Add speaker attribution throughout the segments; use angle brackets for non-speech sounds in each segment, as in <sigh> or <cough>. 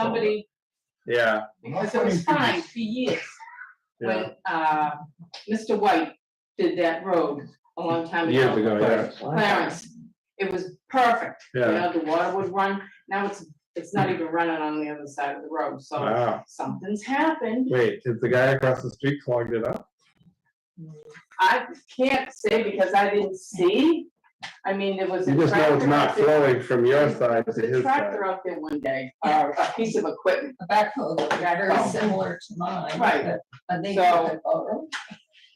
Speaker 1: somebody,
Speaker 2: Yeah,
Speaker 1: because it was fine for years
Speaker 2: yeah,
Speaker 1: when, uh, Mr. White did that road a long time ago.
Speaker 2: years ago, yeah,
Speaker 1: Clarence, it was perfect, you
Speaker 2: Yeah. Hmm.
Speaker 1: know, the water would run, now it's, it's not even running on the other side of the road, so
Speaker 2: wow.
Speaker 1: something's happened.
Speaker 2: Wait, did the guy across the street clogged it up?
Speaker 1: I can't say because I didn't see, I mean, there was a
Speaker 2: You just know it's
Speaker 1: tractor
Speaker 2: not
Speaker 1: out there-
Speaker 2: flowing from your
Speaker 1: there
Speaker 2: side
Speaker 1: was
Speaker 2: to
Speaker 1: a
Speaker 2: his side.
Speaker 1: tractor out there one day, or a piece of equipment,
Speaker 3: a backhoe looked very
Speaker 1: Backhoe.
Speaker 3: similar to mine.
Speaker 1: Oh. Right.
Speaker 3: but I think
Speaker 1: So-
Speaker 3: it's a photo.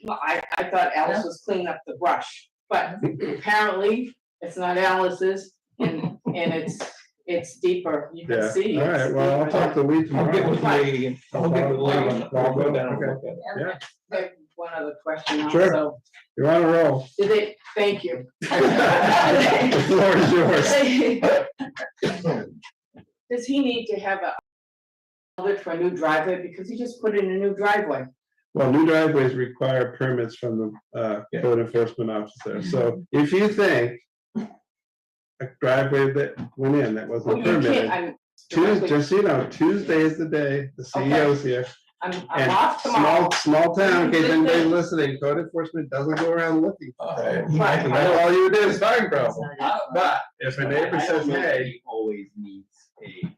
Speaker 1: Well, I, I thought Alice was cleaning up the brush, but apparently it's not Alice's and, and it's, it's deeper, you can
Speaker 2: Yeah,
Speaker 1: see.
Speaker 2: all
Speaker 1: it's
Speaker 2: right, well, I'll
Speaker 1: deeper
Speaker 2: talk to Lee
Speaker 4: I'll get with
Speaker 2: tomorrow.
Speaker 4: the lady, and- I'll get with the lady, and I'll go down and
Speaker 2: Okay.
Speaker 4: look at it.
Speaker 2: Yeah.
Speaker 1: than- One other question
Speaker 2: Sure.
Speaker 1: also,
Speaker 2: You're on a
Speaker 1: <laughs>
Speaker 2: roll.
Speaker 1: did they, thank
Speaker 2: <laughs>
Speaker 1: you.
Speaker 2: The floor is yours.
Speaker 1: Does he need to have a permit for a new driveway, because he just put in a new driveway?
Speaker 2: Well, new driveways require permits from the uh,
Speaker 4: Yeah.
Speaker 2: code enforcement officer, so if you think a driveway that went in that
Speaker 1: Well,
Speaker 2: wasn't
Speaker 1: you can't,
Speaker 2: permitted,
Speaker 1: I'm.
Speaker 2: Tuesday, just, so you know, Tuesday is the day, the CEO's here.
Speaker 1: I'm, I'm
Speaker 2: And
Speaker 1: off tomorrow,
Speaker 2: small, small town, in case anybody's listening, code enforcement doesn't go around looking.
Speaker 4: All right.
Speaker 1: Right.
Speaker 2: And that's all you did is find problems. But if a
Speaker 5: I-
Speaker 2: neighbor
Speaker 5: I
Speaker 2: says,
Speaker 5: don't know if
Speaker 2: hey,
Speaker 5: he Always needs a,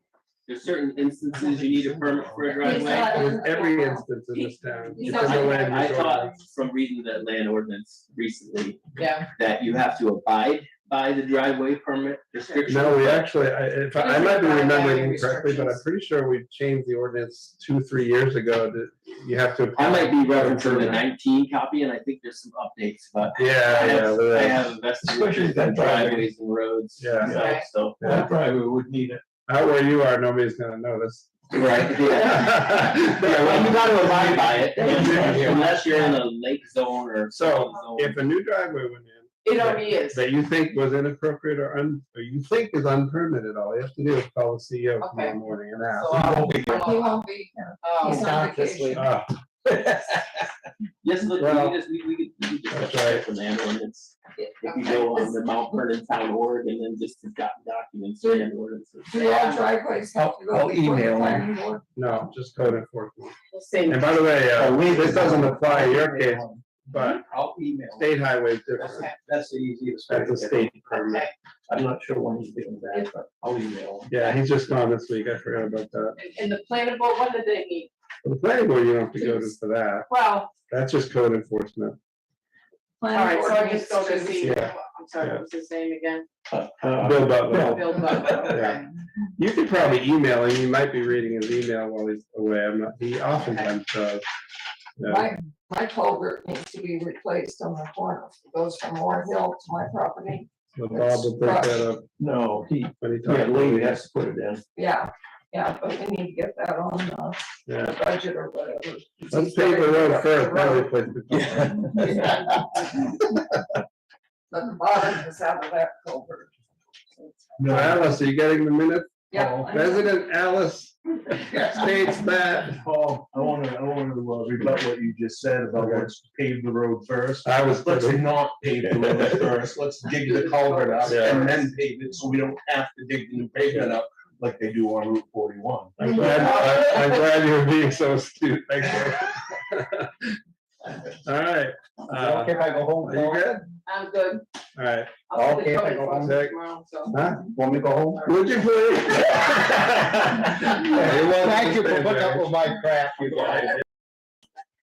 Speaker 5: there's certain instances you need a permit for a
Speaker 3: He's not-
Speaker 5: driveway.
Speaker 2: there's every instance in this town.
Speaker 3: He's
Speaker 2: It
Speaker 3: not-
Speaker 2: doesn't land
Speaker 5: I
Speaker 2: in the
Speaker 5: thought
Speaker 2: order.
Speaker 5: from reading the land ordinance recently,
Speaker 1: yeah,
Speaker 5: that you have to abide by the driveway permit restriction.
Speaker 2: No, we actually, I, if, I I might be remembering incorrectly, but I'm
Speaker 3: Restrictions.
Speaker 2: pretty sure we changed the ordinance two, three years ago that you have to.
Speaker 5: I might be referencing the
Speaker 2: Permit.
Speaker 5: nineteen copy, and I think there's some updates, but I
Speaker 2: Yeah, yeah,
Speaker 5: have, I
Speaker 2: there is.
Speaker 5: have invested
Speaker 4: Especially
Speaker 5: in
Speaker 4: that driveway.
Speaker 5: driveways and roads.
Speaker 2: Yeah.
Speaker 5: so-
Speaker 1: Right.
Speaker 5: So,
Speaker 4: That driver would need it.
Speaker 2: out where you are, nobody's gonna notice.
Speaker 5: right, <laughs>
Speaker 2: <laughs>
Speaker 5: yeah. <laughs> Yeah, well, you gotta abide by it, unless you're in a lake zone or.
Speaker 2: So,
Speaker 5: zone.
Speaker 2: If a new driveway went in,
Speaker 1: it already is,
Speaker 2: that you think was inappropriate or un, or you think is unpermitted, all you have to do is call the CEO
Speaker 1: Okay.
Speaker 2: tomorrow morning and ask.
Speaker 1: so uh, I'll.
Speaker 3: <laughs>
Speaker 2: <laughs>
Speaker 3: He won't be here.
Speaker 1: I'll-
Speaker 3: He's on vacation.
Speaker 2: Ah,
Speaker 5: Yes, look,
Speaker 2: Well,
Speaker 5: we just, we, we could, we could
Speaker 2: that's
Speaker 5: just
Speaker 2: right.
Speaker 5: check the land ordinance. If you go on the Mount Vernon Town org and then just the doc- documents, land ordinances.
Speaker 3: Do all driveways have to go?
Speaker 4: I'll- I'll
Speaker 3: before the
Speaker 4: email him.
Speaker 3: planning board?
Speaker 2: no, just code enforcement.
Speaker 1: We'll see.
Speaker 2: And by the way, uh, this doesn't apply to your case, but
Speaker 4: I'll email.
Speaker 2: state highway is different.
Speaker 1: Okay.
Speaker 4: That's the easiest. way to
Speaker 2: That's a
Speaker 4: get it.
Speaker 2: state permit.
Speaker 4: I'm not sure when he's doing that, but I'll email. him.
Speaker 2: Yeah, he's just gone this week. I forgot about that.
Speaker 1: And- And the planning board, what did they need?
Speaker 2: The planning board, you don't have to go to for that.
Speaker 1: Well,
Speaker 2: That's just code enforcement.
Speaker 1: all
Speaker 3: Planning
Speaker 1: right, so
Speaker 3: board
Speaker 1: I just go
Speaker 3: needs
Speaker 1: to see,
Speaker 2: Yeah.
Speaker 1: I'm sorry, what was his name again?
Speaker 4: Uh,
Speaker 2: Bill Butler.
Speaker 1: Bill Butler, okay.
Speaker 2: You could probably email him. You might be reading his email while he's away. I'm not, he oftentimes does. Yeah.
Speaker 3: My, my culvert needs to be replaced on the corner. It goes from Moore Hill to my property.
Speaker 2: But Bob will bring that up
Speaker 4: No, he,
Speaker 2: when he
Speaker 4: yeah,
Speaker 2: talks.
Speaker 4: Lee has to put it in.
Speaker 3: Yeah, yeah, but we need to get that on uh,
Speaker 2: Yeah.
Speaker 3: the budget or whatever.
Speaker 2: Let's pave the road first, then we place the culvert.
Speaker 3: But the bottom is out of that culvert.
Speaker 2: <laughs> No, Alice, are you getting the minute?
Speaker 3: Yeah. I know.
Speaker 2: Oh, President Alice states that,
Speaker 6: Paul, I want to, I want to rebut what you just said about
Speaker 2: Okay.
Speaker 6: let's pave the road first.
Speaker 2: I was,
Speaker 6: Let's <laughs>
Speaker 2: thinking-
Speaker 6: not pave the road first, let's dig the culvert up and then pave it, so we don't have to dig the new pavement up like they do on Route forty-one.
Speaker 2: I'm glad, I- I'm glad you're being so astute, thank you. <laughs> All right, uh,
Speaker 4: if I go
Speaker 2: are you good?
Speaker 1: I'm good.
Speaker 2: All right,
Speaker 1: I'll put the
Speaker 4: Okay,
Speaker 1: code
Speaker 4: go
Speaker 2: on.
Speaker 1: enforcement tomorrow, so.
Speaker 2: huh?
Speaker 4: Want me to go home?
Speaker 2: Would you
Speaker 4: <laughs>
Speaker 2: please?
Speaker 4: Thank you for putting up with my crap. you guys.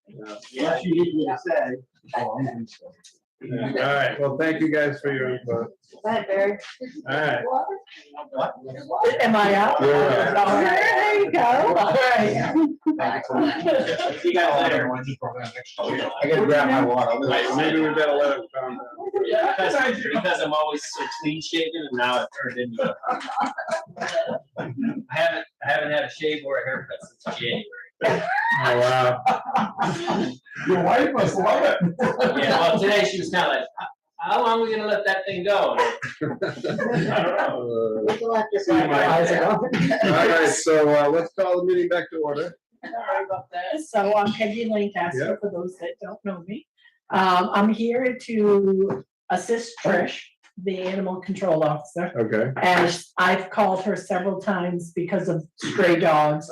Speaker 2: Yeah.
Speaker 4: Unless you need me to say. Oh, I'm gonna say.
Speaker 2: Yeah, All right, well, thank you guys for your input.
Speaker 3: Hi, Barry.
Speaker 2: All right.
Speaker 4: What?
Speaker 3: Am I up?
Speaker 2: You're up.
Speaker 3: All right, There you go. All right.
Speaker 4: Thank you so much.
Speaker 5: <laughs>
Speaker 4: Oh,
Speaker 5: See you guys later. Oh,
Speaker 4: I gotta grab my water.
Speaker 2: Right, Maybe we better let him calm down.
Speaker 5: Because because I'm always so clean shaven and now it turned into. a- <laughs> I haven't, I haven't had a shave or a haircut since January.
Speaker 2: Oh, wow.
Speaker 4: Your wife must love it.
Speaker 5: Yeah, well, today she was kind of like, "How- how long are we gonna let that thing go? And <laughs> I don't know.
Speaker 4: <laughs>
Speaker 2: Uh,
Speaker 4: See my eyes are up.
Speaker 2: All right, so uh, let's call the meeting back to order.
Speaker 1: Sorry about that.
Speaker 7: So I'm Peggy
Speaker 2: Yeah.
Speaker 7: Lancaster, for those that don't know me. Um, I'm here to assist Trish the animal control officer.
Speaker 2: okay.
Speaker 7: And I've called her several times because of stray dogs